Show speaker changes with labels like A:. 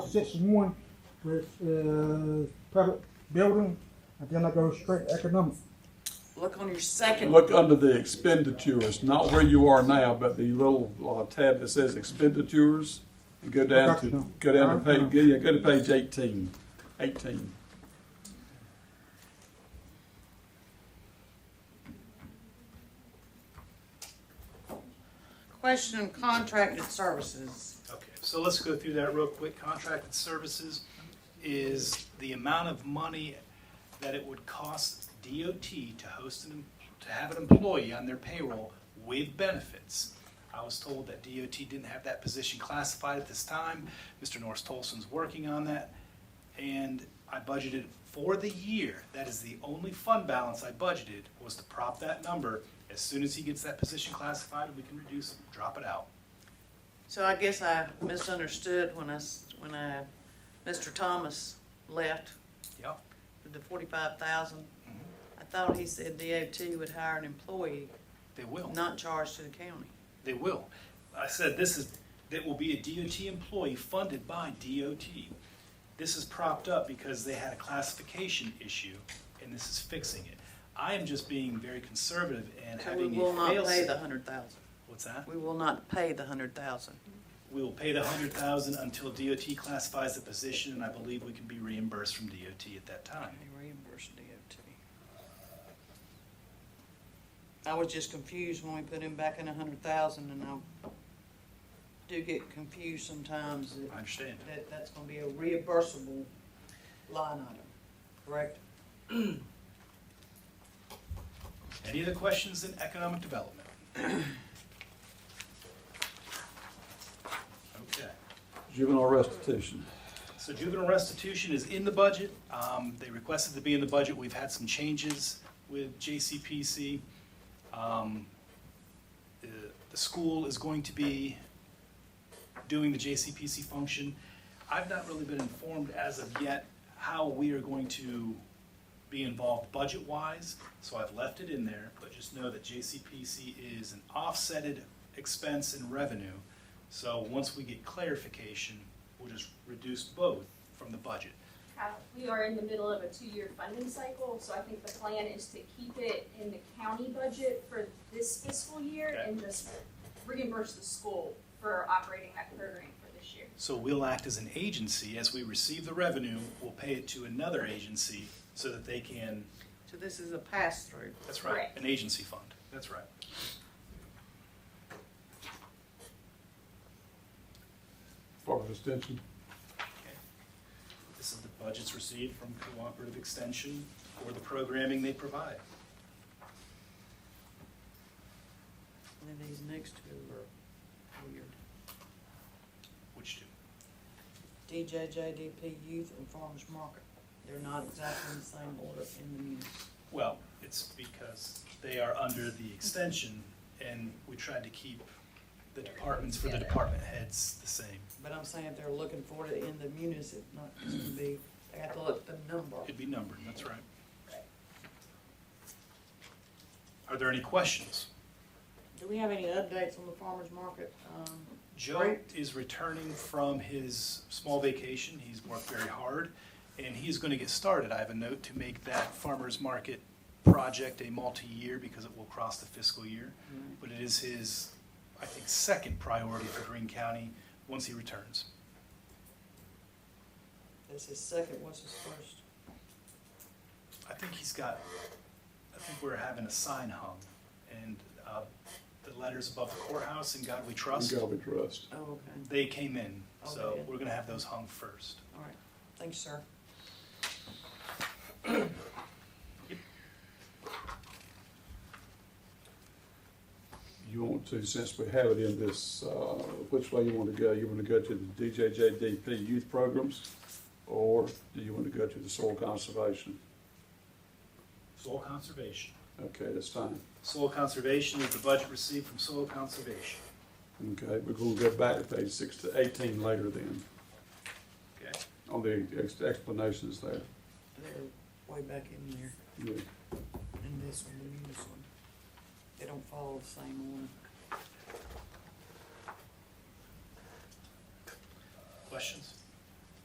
A: section one, which is public building, and then I go straight to economic.
B: Look on your second.
C: Look under the expenditures, not where you are now, but the little uh, tab that says expenditures. And go down to, go down to page, yeah, go to page eighteen. Eighteen.
B: Question contracted services.
D: Okay, so let's go through that real quick. Contracted services is the amount of money that it would cost DOT to host an, to have an employee on their payroll with benefits. I was told that DOT didn't have that position classified at this time. Mr. Norris Tolson's working on that. And I budgeted for the year, that is the only fund balance I budgeted, was to prop that number. As soon as he gets that position classified, we can reduce, it, drop it out.
B: So I guess I misunderstood when I, s- when I, Mr. Thomas left
D: Yep.
B: with the forty-five thousand. I thought he said DOT would hire an employee,
D: They will.
B: not charge to the county.
D: They will. I said this is, that will be a DOT employee funded by DOT. This is propped up because they had a classification issue, and this is fixing it. I am just being very conservative and
B: So we
D: having
B: will
D: a
B: not pay
D: fail-safe.
B: the hundred thousand.
D: What's that?
B: We will not pay the hundred thousand.
D: We will pay the hundred thousand until DOT classifies the position, and I believe we can be reimbursed from DOT at that time.
B: Reimburse DOT. I was just confused when we put him back in a hundred thousand and I do get confused sometimes that
D: I understand.
B: that that's gonna be a reimbursable line item, correct?
D: Any other questions in economic development? Okay.
C: Juvenile restitution.
D: So juvenile restitution is in the budget. Um, They requested to be in the budget. We've had some changes with JCPC. Um, The the school is going to be doing the JCPC function. I've not really been informed as of yet how we are going to be involved budget-wise, so I've left it in there, but just know that JCPC is an offsetted expense in revenue. So once we get clarification, we'll just reduce both from the budget.
E: Uh, We are in the middle of a two-year funding cycle, so I think the plan is to keep it in the county budget for this fiscal year
D: Okay.
E: and just reimburse the school for operating that program for this year.
D: So we'll act as an agency, as we receive the revenue, we'll pay it to another agency so that they can,
B: So this is a pass-through.
D: that's right,
E: Correct.
D: an agency fund, that's right.
C: Department of Extension.
D: This is the budgets received from Cooperative Extension for the programming they provide.
B: And then these next two are weird.
D: Which do?
B: DJJDP Youth and Farmers Market. They're not exactly in the same order in the munis.
D: Well, it's because they are under the extension, and we tried to keep the departments for the department heads the same.
B: But I'm saying if they're looking for it in the munis, it's not just gonna be, they have to look at the number.
D: It'd be numbered, that's right. Are there any questions?
B: Do we have any updates on the farmer's market? Um,
D: Joe is returning from his small vacation. He's worked very hard, and he's going to get started. I have a note to make that farmer's market project a multi-year because it will cross the fiscal year. But it is his, I think, second priority for Green County once he returns.
B: That's his second, what's his first?
D: I think he's got, I think we're having a sign hung, and uh, the letters above the courthouse in God We Trust,
C: God we trust.
B: Oh, okay,
D: they came in, so
B: Okay.
D: we're going to have those hung first.
B: all right. Thanks, sir.
C: You want to, since we have it in this, uh, which way you want to go? You want to go to the DJJDP youth programs? Or do you want to go to the soil conservation?
D: Soil conservation.
C: Okay, that's fine.
D: Soil conservation is the budget received from soil conservation.
C: Okay, we're going to go back to page six to eighteen later then,
D: Okay.
C: on the ex- explanations there.
B: They're way back in there,
C: Yeah.
B: in this one, the munis one. They don't follow the same one.
D: Questions?